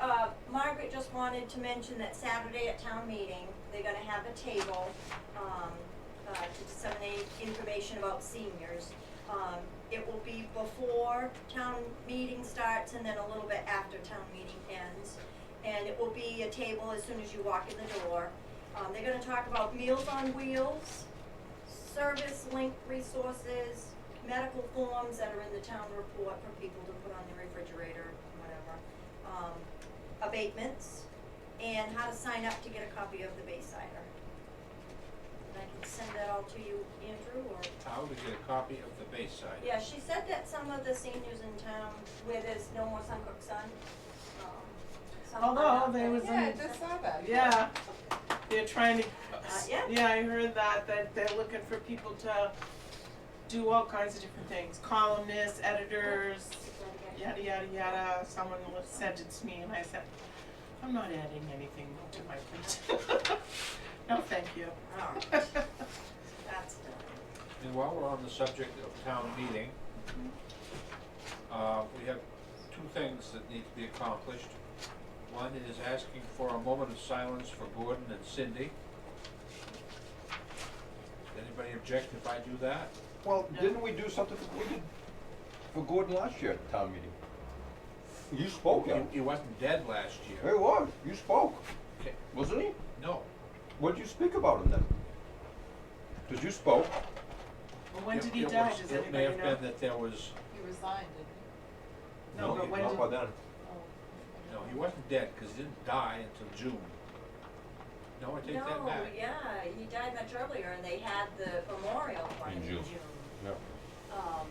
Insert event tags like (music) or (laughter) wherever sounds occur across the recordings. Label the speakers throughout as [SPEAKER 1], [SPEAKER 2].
[SPEAKER 1] I uh, just wanted to mention that Saturday at town meeting, they're gonna have a table, um, uh, to disseminate information about seniors. Um, it will be before town meeting starts and then a little bit after town meeting ends. And it will be a table as soon as you walk in the door. Um, they're gonna talk about Meals on Wheels, service link resources, medical forms that are in the town report for people to put on the refrigerator, whatever. Um, abatements, and how to sign up to get a copy of the Baysider. And I can send that all to you, Andrew, or?
[SPEAKER 2] How to get a copy of the Bayside.
[SPEAKER 1] Yeah, she said that some of the seniors in town where there's no more Suncook Sun, um, some.
[SPEAKER 3] Although Oh, there was
[SPEAKER 4] Yeah, I just saw that.
[SPEAKER 3] Yeah, they're trying to.
[SPEAKER 1] yeah.
[SPEAKER 3] Yeah, I heard that, that they're looking for people to do all kinds of different things, columnists, editors, yada, yada, yada. Someone was- sent it to me and I said, I'm not adding anything to my plate. (laughs) No, thank you. (laughs)
[SPEAKER 1] Alright, Oh, that's done.
[SPEAKER 2] And while we're on the subject of town meeting,
[SPEAKER 3] Mm-hmm.
[SPEAKER 2] uh, we have two things that need to be accomplished. One is asking for a moment of silence for Gordon and Cindy. Does anybody object if I do that?
[SPEAKER 5] Well,
[SPEAKER 3] No.
[SPEAKER 5] didn't we do something for, we did for Gordon last year at town meeting? You spoke, Oh, yeah.
[SPEAKER 2] He- He wasn't dead last
[SPEAKER 5] He
[SPEAKER 2] year.
[SPEAKER 5] was, you spoke,
[SPEAKER 2] Okay,
[SPEAKER 5] wasn't he?
[SPEAKER 2] No,
[SPEAKER 5] What did you speak about him then? Because you spoke.
[SPEAKER 3] Well, when
[SPEAKER 2] It-
[SPEAKER 3] did he
[SPEAKER 2] it
[SPEAKER 3] die?
[SPEAKER 2] was-
[SPEAKER 3] Does
[SPEAKER 2] It may
[SPEAKER 3] anybody
[SPEAKER 2] have been
[SPEAKER 3] know?
[SPEAKER 2] that there was,
[SPEAKER 4] He resigned, didn't
[SPEAKER 3] No, but
[SPEAKER 5] he-
[SPEAKER 3] when
[SPEAKER 5] Not
[SPEAKER 3] did-
[SPEAKER 5] by then.
[SPEAKER 4] he?
[SPEAKER 2] no, he wasn't dead, because he didn't die until June. No, I take that
[SPEAKER 1] No,
[SPEAKER 2] back.
[SPEAKER 1] yeah, he died much earlier and they had the memorial for him
[SPEAKER 5] In
[SPEAKER 1] in June.
[SPEAKER 5] June. Yeah.
[SPEAKER 1] Um,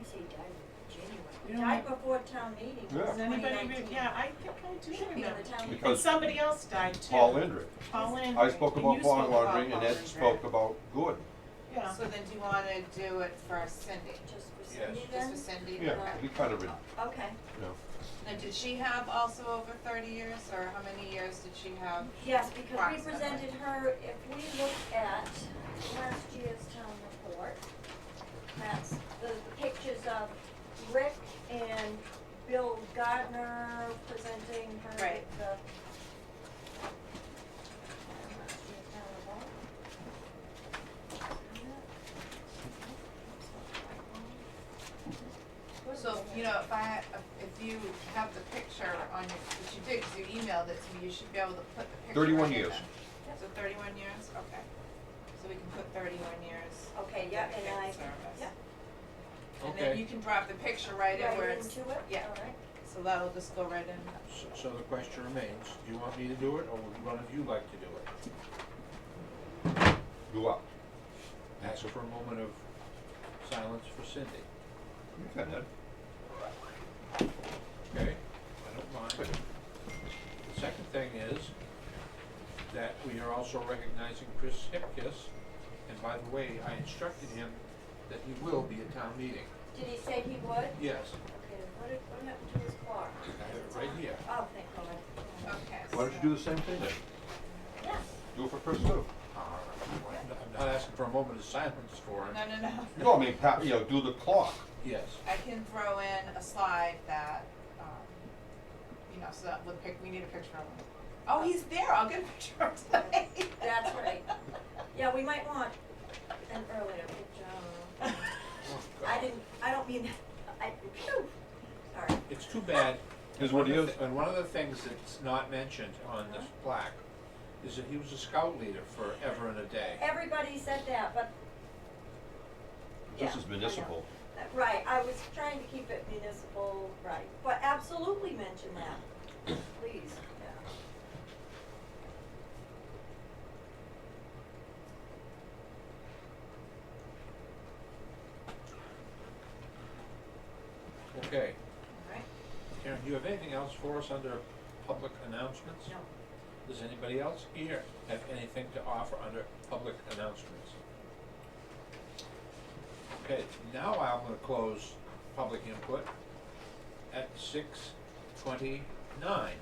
[SPEAKER 1] I say he died in January,
[SPEAKER 3] You
[SPEAKER 1] he
[SPEAKER 3] don't
[SPEAKER 1] died
[SPEAKER 3] know.
[SPEAKER 1] before town meeting,
[SPEAKER 5] Yeah.
[SPEAKER 3] Does anybody,
[SPEAKER 1] 2019.
[SPEAKER 3] re- yeah, I think I do
[SPEAKER 1] Should be on
[SPEAKER 3] remember.
[SPEAKER 1] the town meeting.
[SPEAKER 3] And
[SPEAKER 5] Because-
[SPEAKER 3] somebody else died too.
[SPEAKER 5] Paul Lindrick.
[SPEAKER 3] Paul Landry.
[SPEAKER 5] I spoke
[SPEAKER 3] and
[SPEAKER 5] about
[SPEAKER 3] you
[SPEAKER 5] Paul
[SPEAKER 3] spoke about
[SPEAKER 5] laundering and
[SPEAKER 3] Paul
[SPEAKER 5] Ed
[SPEAKER 3] Landry.
[SPEAKER 5] spoke about Gordon.
[SPEAKER 3] Yeah.
[SPEAKER 4] So then do you wanna do it for Cindy?
[SPEAKER 1] Just for
[SPEAKER 2] Yes.
[SPEAKER 1] Cindy
[SPEAKER 4] Just
[SPEAKER 1] then?
[SPEAKER 4] for Cindy?
[SPEAKER 5] Yeah, we kind of, you
[SPEAKER 1] Okay,
[SPEAKER 5] know.
[SPEAKER 4] Now, did she have also over thirty years, or how many years did she have?
[SPEAKER 1] yes, because we
[SPEAKER 4] Approximately.
[SPEAKER 1] presented her, if we look at last year's town report, that's the pictures of Rick and Bill Gardner presenting her
[SPEAKER 4] Right.
[SPEAKER 1] with the. Last year's town report.
[SPEAKER 4] So, you know, if I, if you have the picture on your, which you did, 'cause you emailed it to me, you should be able to put the picture on
[SPEAKER 5] 31
[SPEAKER 4] here
[SPEAKER 5] years.
[SPEAKER 4] then. So thirty-one years, okay. So we can put thirty-one years.
[SPEAKER 1] Okay, yeah, and
[SPEAKER 4] dedicated
[SPEAKER 1] I,
[SPEAKER 4] service.
[SPEAKER 1] yeah.
[SPEAKER 4] And
[SPEAKER 2] Okay.
[SPEAKER 4] then you can drop the picture right in where
[SPEAKER 1] right
[SPEAKER 4] it's,
[SPEAKER 1] into it, all right.
[SPEAKER 4] yeah. so that'll just go right in.
[SPEAKER 2] So- So the question remains, do you want me to do it, or would one of you like to do it?
[SPEAKER 5] Go up.
[SPEAKER 2] Ask for a moment of silence for Cindy,
[SPEAKER 5] You can, Ed.
[SPEAKER 2] okay? I don't mind. The second thing is that we are also recognizing Chris Hipkiss, and by the way, I instructed him that he will be at town meeting.
[SPEAKER 1] Did he say he would?
[SPEAKER 2] Yes,
[SPEAKER 1] Okay, what did, what happened to his car?
[SPEAKER 2] I have it right here.
[SPEAKER 1] Oh, thank God.
[SPEAKER 4] Okay.
[SPEAKER 5] Why don't you do the same thing then?
[SPEAKER 1] Yes,
[SPEAKER 5] Do it for Chris too.
[SPEAKER 2] Uh, I'm not- I'm not asking for a moment of silence for him,
[SPEAKER 4] No, no, no.
[SPEAKER 5] No, I mean, pa- you know, do the clock.
[SPEAKER 2] yes.
[SPEAKER 4] I can throw in a slide that, um, you know, so that, we pic, we need a picture of him. Oh, he's there, I'll get a picture of him today.
[SPEAKER 1] that's right. Yeah, we might want an earlier picture. I don't know.
[SPEAKER 4] (laughs)
[SPEAKER 2] Oh,
[SPEAKER 1] I
[SPEAKER 2] God.
[SPEAKER 1] didn't, I don't mean, (laughs) that. I, phew, sorry.
[SPEAKER 2] It's too bad
[SPEAKER 5] Is what he
[SPEAKER 2] One of the
[SPEAKER 5] is.
[SPEAKER 2] thi- And one of the things that's not mentioned on this plaque is that he was a scout leader forever and a day.
[SPEAKER 1] Everybody said that, but. Yeah,
[SPEAKER 5] This
[SPEAKER 1] I
[SPEAKER 5] is
[SPEAKER 1] know.
[SPEAKER 5] municipal.
[SPEAKER 1] Uh, Right, I was trying to keep it municipal, right, but absolutely mention
[SPEAKER 2] (clears throat)
[SPEAKER 1] that, please, yeah.
[SPEAKER 2] Okay,
[SPEAKER 1] All right,
[SPEAKER 2] Karen, do you have anything else for us under public announcements?
[SPEAKER 1] no.
[SPEAKER 2] Does anybody else here have anything to offer under public announcements? Okay, now I'm gonna close public input at six twenty-nine.